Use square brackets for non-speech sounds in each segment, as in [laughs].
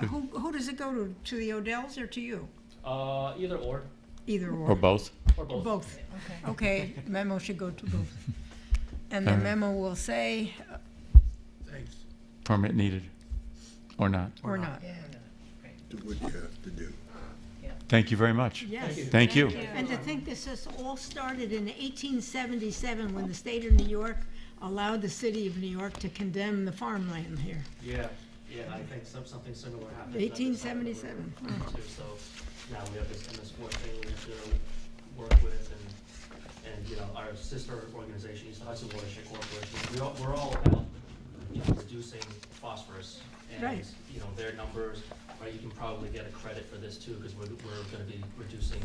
Who, who does it go to? To the Odells or to you? Uh, either or, Either Or or. both? or both. Both. Okay. Okay, memo should go to [laughs] both. And the Alright. memo will say, Thanks. Permit needed or not? or not. Yeah. Do what you have to do. Thank you very much. Yes. Thank you. And to think this has all started in 1877, when the state of New York allowed the city of New York to condemn the farmland here. Yeah, yeah, I think some, something similar happened. at the time that we were 1877. going through, So now we have this MS four thing we have to work with and, and, you know, our sister organization, East Hudson Watershed Corporation, we all, we're all about, you know, reducing phosphorus. And, Right. you know, their numbers, right, you can probably get a credit for this too, because we're, we're gonna be reducing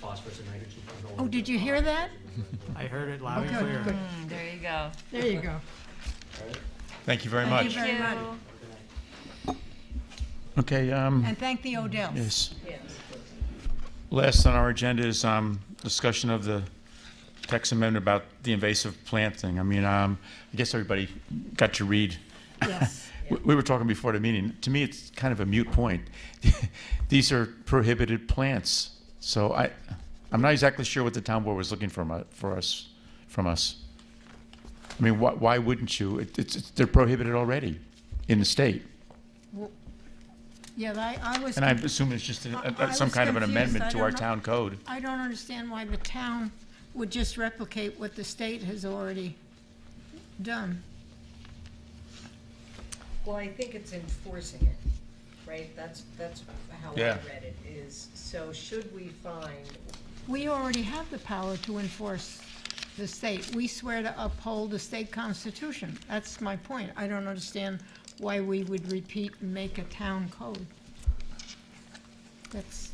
phosphorus and nitrogen. from the Oh, did you hear that? I heard it loud and Okay, clear. good. Mm, There you go. There you go. Right? Thank you very Thank much. you very Thank much. Okay. Okay, um, [laughs] And thank the Odells. yes. you. Yes. Last on our agenda is, um, discussion of the text amendment about the invasive plant thing. I mean, um, I guess everybody got to read. [laughs] Yes. We- We were talking before the meeting. To me, it's kind of a mute point. [laughs] These are prohibited plants. So I, I'm not exactly sure what the town board was looking from, u- for us, from us. I mean, why, why wouldn't you? It- It's, it's- they're prohibited already in the state. Yeah, I, I was. And I assume it's just a- I- I a- some was kind of an confused. I amendment to don't our know. town code. I don't understand why the town would just replicate what the state has already done. Well, I think it's enforcing it, right? That's, that's how I Yeah. read it is, so should we find, We already have the power to enforce the state. We swear to uphold the state constitution. That's my point. I don't understand why we would repeat and make a town code. That's,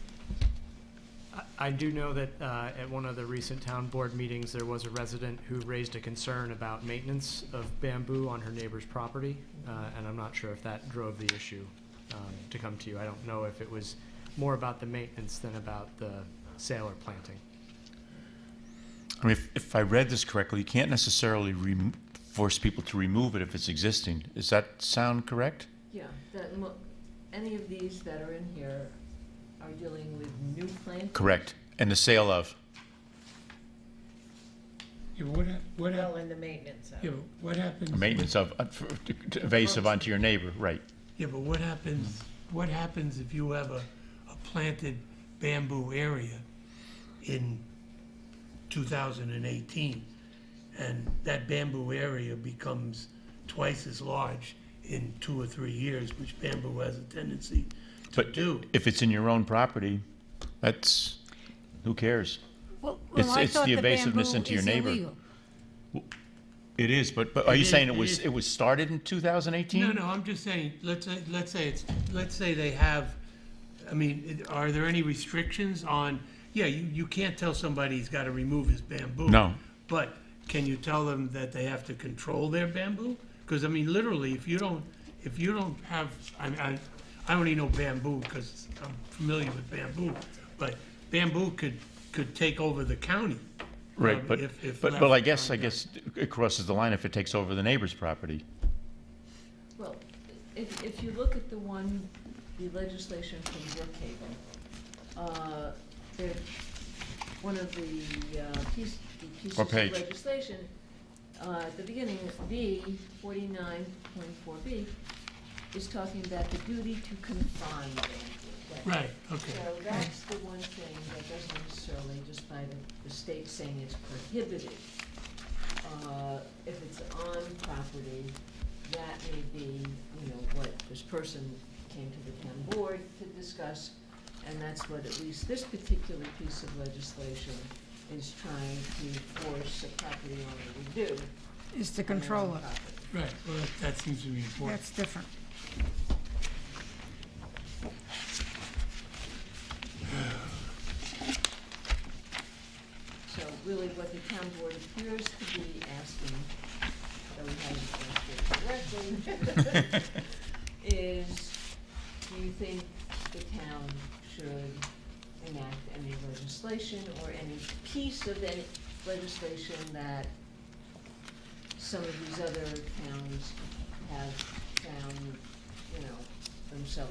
I- I do know that uh, at one of the recent town board meetings, there was a resident who raised a concern about maintenance of bamboo on her neighbor's property, uh, and I'm not sure if that drove the issue um, to come to you. I don't know if it was more about the maintenance than about the sale or planting. I mean, if, if I read this correctly, you can't necessarily rem force people to remove it if it's existing. Does that sound correct? Yeah, that, mo- any of these that are in here are dealing with new plant. Correct. And the sale of? Yeah, what, hap- what, hap- well, in the maintenance of? yeah, but what happens? Maintenance of, uh, for- to- to invasive onto your neighbor, right. Yeah, but what happens, what happens if you have a, a planted bamboo area in two thousand and eighteen? And that bamboo area becomes twice as large in two or three years, which bamboo has a tendency to But do. if it's in your own property, that's, who cares? well, It's- I it's thought the the evasiveness bamboo into your is neighbor. illegal. It is, but, but are It you is- saying it it was, is. it was started in 2018? No, no, I'm just saying, let's say, let's say it's, let's say they have, I mean, i- are there any restrictions on, yeah, you, you can't tell somebody he's gotta remove his bamboo. No. But can you tell them that they have to control their bamboo? Cause I mean, literally, if you don't, if you don't have, I, I, I only know bamboo, cause I'm familiar with bamboo, but bamboo could, could take over the county. Right, um, but, if- if but, left well, I guess, I undone. guess it crosses the line if it takes over the neighbor's property. Well, if, if you look at the one, the legislation from Brookhaven, uh, there, one of the, uh, piece, the pieces What of page? legislation, uh, at the beginning, B, forty-nine point four B, is talking about the duty to confine land. Right, okay. So that's the one thing that doesn't necessarily, just by the, the state saying it's prohibited, uh, if it's on property, that may be, you know, what this person came to the town board to discuss, and that's what at least this particular piece of legislation is trying to force a property owner to do. on Is to their control own it. property. Right, well, that seems to be important. That's different. So really what the town board appears to be asking, though we haven't understood it correctly, is do you think the town should enact any legislation or any piece of any legislation that some of these other towns have found, you know, themselves